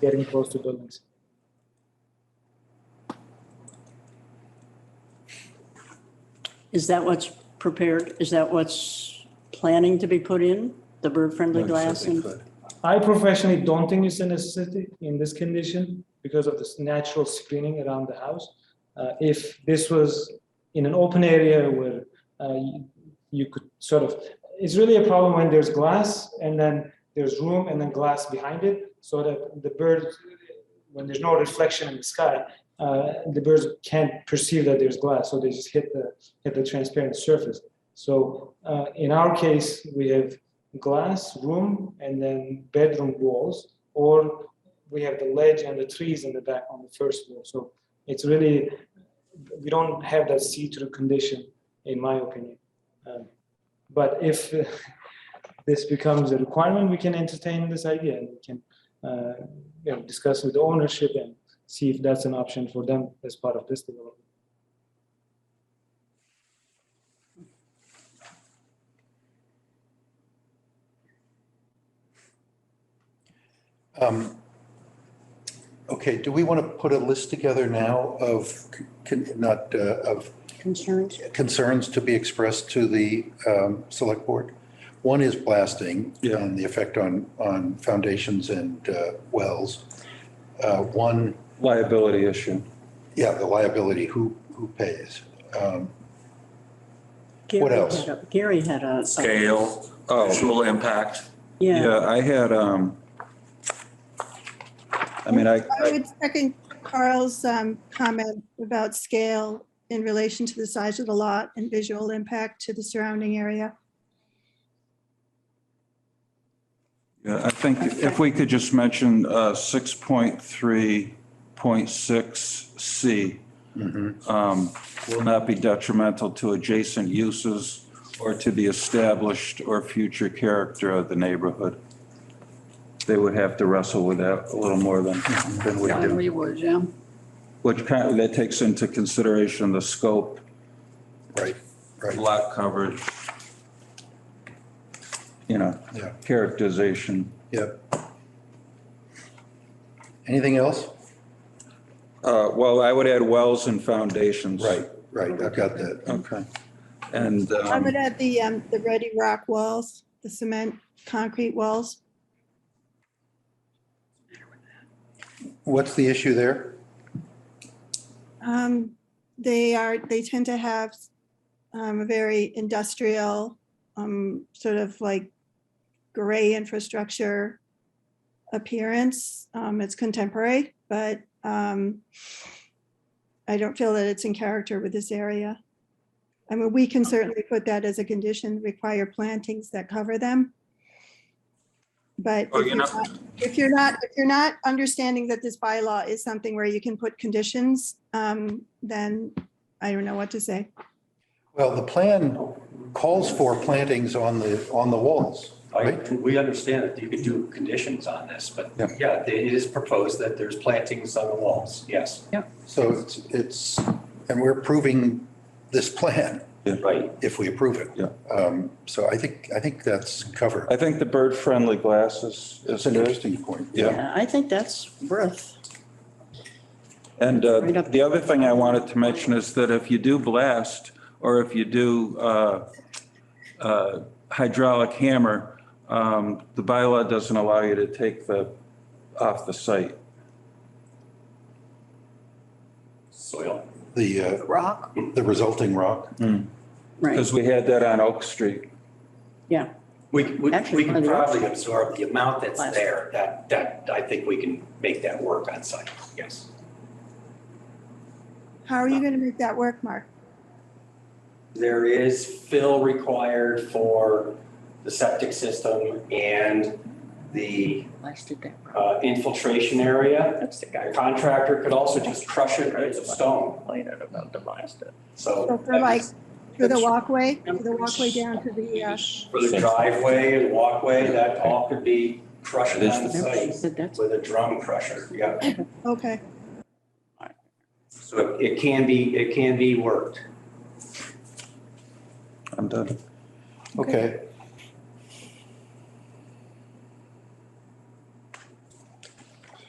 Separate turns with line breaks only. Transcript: getting close to buildings.
Is that what's prepared? Is that what's planning to be put in? The bird-friendly glass and,
I professionally don't think it's a necessity in this condition because of this natural screening around the house. Uh, if this was in an open area where uh, you, you could sort of, it's really a problem when there's glass and then there's room and then glass behind it so that the birds, when there's no reflection in the sky, uh, the birds can't perceive that there's glass, so they just hit the hit the transparent surface. So uh, in our case, we have glass room and then bedroom walls, or we have the ledge and the trees in the back on the first floor. So it's really, we don't have that see-through condition, in my opinion. Um, But if uh, this becomes a requirement, we can entertain this idea and we can, uh, you know, discuss with the ownership and see if that's an option for them as part of this development.
Um, Okay, do we want to put a list together now of, con- not, uh, of
concerns?
concerns to be expressed to the um, select board? One is blasting
Yeah.
and the effect on, on foundations and uh, wells. Uh, One,
Liability issue.
yeah, the liability, who, who pays? Um, What
Gary
else?
had a- Gary had a. a-
scale,
Oh,
visual impact.
Yeah,
yeah, I had, um, I mean, I,
I would second Carl's um, comment about scale in relation to the size of the lot and visual impact to the surrounding area.
yeah, I think if we could just mention, uh, six point three point six C. Um, will not be detrimental to adjacent uses or to the established or future character of the neighborhood. They would have to wrestle with that a little more than, than we do.
we would, yeah.
Which kind of, that takes into consideration the scope,
Right, right,
lot coverage, you know,
yeah,
characterization.
yeah. Anything else?
Uh, well, I would add wells and foundations.
Right, I've got that.
Okay. And,
I would
um,
add the, um, the ready rock walls, the cement, concrete walls.
What's the issue there?
Um, They are, they tend to have um, a very industrial, um, sort of like gray infrastructure appearance. Um, It's contemporary, but um, I don't feel that it's in character with this area. I mean, we can certainly put that as a condition, require plantings that cover them. But
Oh, you're
if you're
not-
not- if you're not, if you're not understanding that this bylaw is something where you can put conditions, um, then I don't know what to say.
Well, the plan calls for plantings on the, on the walls,
I,
right?
we understand that you could do conditions on this, but
Yeah.
yeah, it is proposed that there's plantings on the walls, yes.
So it's, it's, and we're approving this plan
Right.
if we approve it.
Yeah.
Um, So I think, I think that's covered.
I think the bird-friendly glasses
That's
is
an
good.
interesting point.
Yeah.
Yeah, I think that's worth,
And, uh,
Right up.
the other thing I wanted to mention is that if you do blast, or if you do, uh, uh, hydraulic hammer, um, the bylaw doesn't allow you to take the, off the site.
Soil.
The, uh,
rock,
the resulting rock.
right,
Because we had that on Oak Street.
yeah.
We, we,
Actually,
we
one of
can
the
probably absorb the amount that's
Last.
there, that, that, I think we can make that work on site, yes.
How are you gonna make that work, Mark?
There is fill required for the septic system and the
Blasted that rock.
uh, infiltration area.
That's the
A
guy
contractor could also just crush it as a stone,
complaining about the blast.
uh,
so.
So for
that
like,
is-
for the walkway, for the walkway down to the, uh,
For the driveway and walkway, that all could be crushed
It is
on
the-
Remember She
site
said that's,
with a drum crusher, yeah.
okay,
So it- it can be, it can be worked.
I'm done.
Okay.